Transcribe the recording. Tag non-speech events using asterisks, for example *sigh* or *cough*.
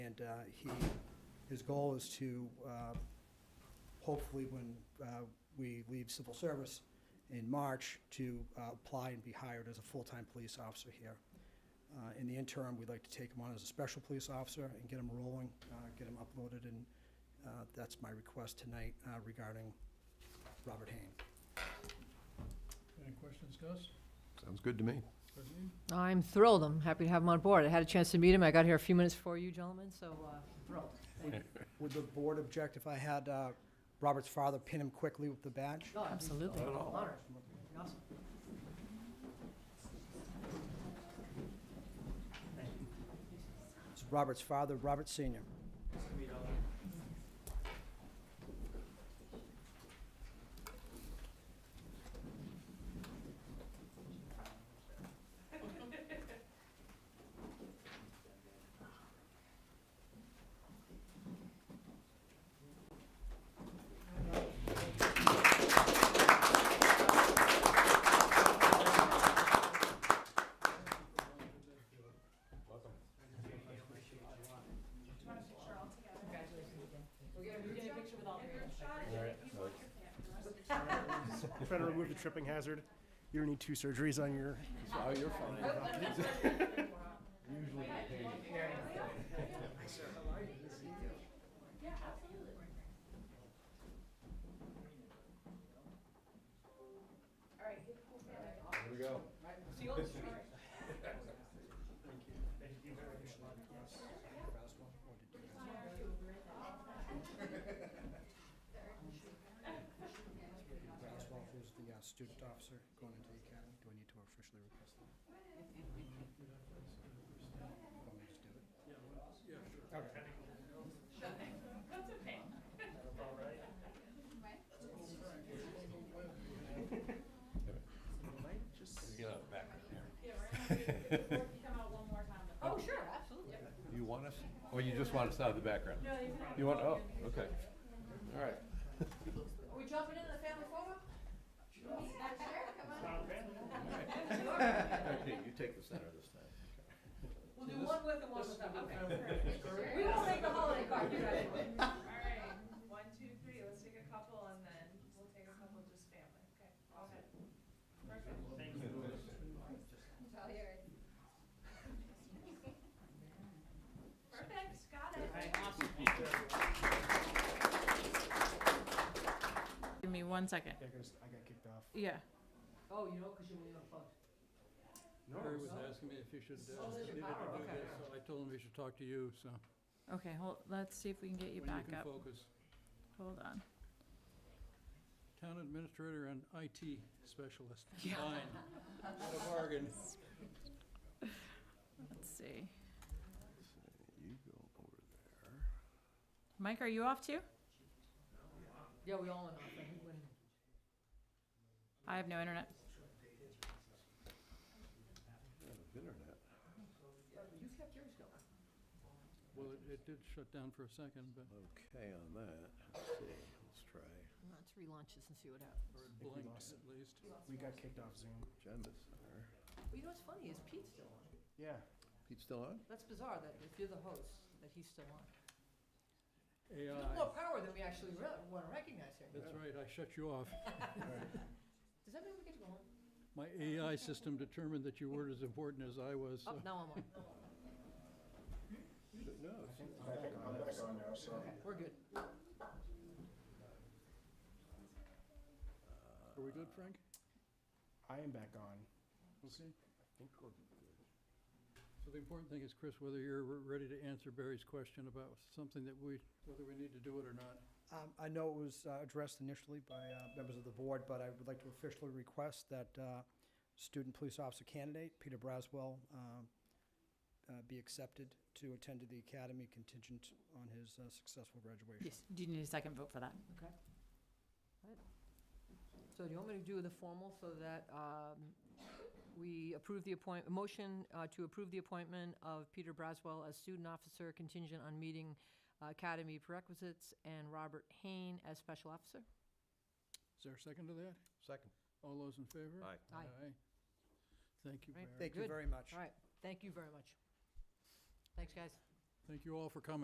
uh, he, his goal is to, uh, hopefully, when uh, we leave civil service in March, to uh, apply and be hired as a full-time police officer here. Uh, In the interim, we'd like to take him on as a special police officer and get him rolling, uh, get him uploaded, and uh, that's my request tonight uh, regarding Robert Hain. Any questions, Gus? Sounds good to me. Christine? I'm thrilled. I'm happy to have him on board. I had a chance to meet him. I got here a few minutes before you gentlemen, so uh, thrilled. Thank you. Would the board object if I had uh, Robert's father pin him quickly with the badge? No, Absolutely. Honor. Awesome. It's Robert's father, Robert Senior. Trying to remove the tripping hazard. You don't need two surgeries on your. Here we go. Braswell, who's the uh, student officer going into the academy, do I need to officially request that? Want me to just do it? Oh, sure, absolutely. You want us, or you just want us out of the background? You want, oh, okay. All right. Are we jumping into the family photo? Okay, you take the center this time. We'll do one with and one without. Okay. We won't make the holiday card, you guys *laughs* will. Alright, one, two, three, let's take a couple and then we'll take a couple just family, okay, all good. Perfect. Thank you. It's all yours. Perfect, got it. Give me one second. I got kicked off. Yeah. Oh, you know, because you were unplugged. Harry was asking me if he should, uh, Oh, there's your needed power, to do okay. this, so I told him he should talk to you, so. Okay, hold, let's see if we can get you when back you can up. focus. Hold on. Town administrator and IT *laughs* specialist, combined. What a bargain. Let's see. You go over there. Mike, are you off too? Yeah, we all went off. I think we went- I have no internet. Yeah, the Internet. You kept yours going. Well, it- it did shut down for a second, but Okay on that. Let's see, let's try Let's relaunch this and see what happens. or it we blinked lost at least. We got kicked off Zoom. agenda center. Well, you know what's funny is Pete's still on. Yeah. Pete's still on? That's bizarre that if you're the host, that he's still on. You have more AI, power than we actually re- want to recognize here. that's right, I shut you off. Does that mean we get to go on? My AI system determined that you weren't as important as I was, so. Oh, now I'm on. No, it's- Okay, *laughs* we're good. Uh, Are we good, Frank? I am back on. Okay. So the important thing is, Chris, whether you're re- ready to answer Barry's question about something that we, whether we need to do it or not. Um, I know it was uh, addressed initially by uh, members of the board, but I would like to officially request that uh, student police officer candidate, Peter Braswell, um, uh, be accepted to attend to the academy contingent on his uh, successful graduation. Yes. Do you need a second vote for that? So do you want me to do the formal so that um, we approve the appoint, motion uh, to approve the appointment of Peter Braswell as student officer contingent on meeting uh, academy prerequisites and Robert Hain as special officer? Is there a second to that? Second. All those in favor? Aye. Aye. Thank you, Right. Barry. Thank you Good. very much. All right, thank you very much. Thanks, guys. Thank you all for coming.